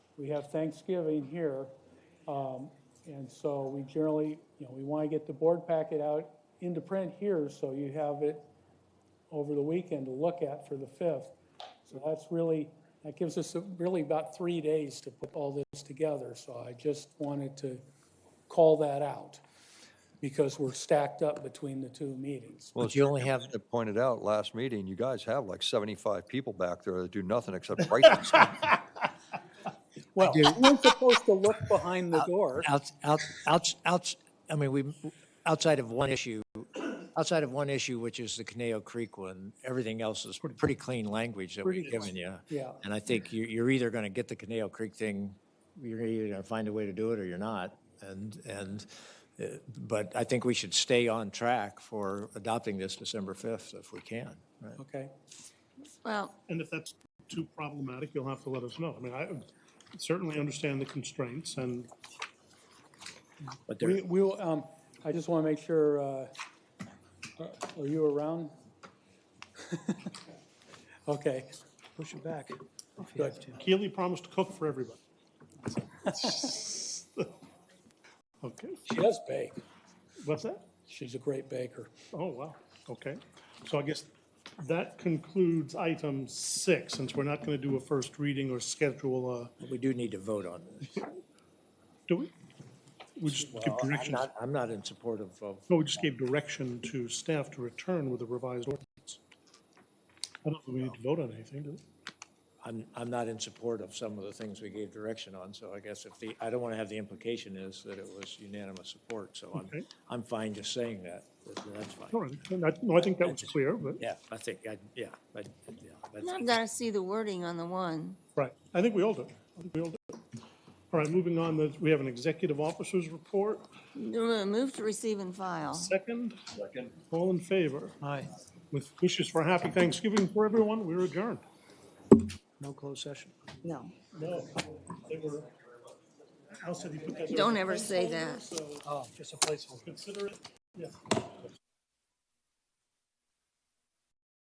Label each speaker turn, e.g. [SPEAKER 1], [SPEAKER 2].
[SPEAKER 1] we have Thanksgiving here. Um, and so we generally, you know, we want to get the board packet out into print here so you have it over the weekend to look at for the fifth. So that's really, that gives us a- really about three days to put all this together. So I just wanted to call that out because we're stacked up between the two meetings.
[SPEAKER 2] Well,
[SPEAKER 3] But you only have,
[SPEAKER 2] as Ed pointed out last meeting, you guys have like 75 people back there that do nothing except write this stuff.
[SPEAKER 1] Well,
[SPEAKER 3] do-
[SPEAKER 1] we're supposed to look behind the door.
[SPEAKER 3] out, out, out, out, I mean, we, outside of one issue, outside of one issue, which is the Caneo Creek one, everything else is pretty clean language that
[SPEAKER 1] Pretty
[SPEAKER 3] we've given you.
[SPEAKER 1] Yeah.
[SPEAKER 3] And I think you, you're either going to get the Caneo Creek thing, you're either going to find a way to do it or you're not. And, and, uh, but I think we should stay on track for adopting this December 5th if we can. right?
[SPEAKER 1] Okay.
[SPEAKER 4] Well,
[SPEAKER 5] And if that's too problematic, you'll have to let us know. I mean, I certainly understand the constraints and
[SPEAKER 3] But there,
[SPEAKER 1] We, we'll, um, I just want to make sure, uh, are you around? Okay. Push it back. Good.
[SPEAKER 5] Keely promised to cook for everybody. Okay,
[SPEAKER 1] She does bake.
[SPEAKER 5] what's that?
[SPEAKER 1] She's a great baker.
[SPEAKER 5] Oh, wow, okay. So I guess that concludes item six, since we're not going to do a first reading or schedule a,
[SPEAKER 3] we do need to vote on this.
[SPEAKER 5] do we? We just give
[SPEAKER 3] I'm
[SPEAKER 5] directions.
[SPEAKER 3] not, I'm not in support of, of
[SPEAKER 5] No, we just gave direction to staff to return with a revised ordinance. I don't think we need to vote on anything, do we?
[SPEAKER 3] I'm, I'm not in support of some of the things we gave direction on, so I guess if the, I don't want to have the implication is that it was unanimous support, so I'm,
[SPEAKER 5] Okay.
[SPEAKER 3] I'm fine just saying that, that- that's fine.
[SPEAKER 5] All right, and I- no, I think that was clear, but,
[SPEAKER 3] Yeah, I think, I, yeah, but, yeah. that's-
[SPEAKER 4] I've got to see the wording on the one.
[SPEAKER 5] right, I think we all do. I think we all do. All right, moving on, there's- we have an executive officer's report.
[SPEAKER 4] Move to receive and file.
[SPEAKER 5] Second? Second. All in favor? Aye. With wishes for a happy Thanksgiving for everyone, we're adjourned.
[SPEAKER 6] No closed session.
[SPEAKER 4] No.
[SPEAKER 5] No, they were, Al said he put that there.
[SPEAKER 4] Don't ever say that.
[SPEAKER 6] Oh, just a placeholder.
[SPEAKER 5] Consider it, yeah.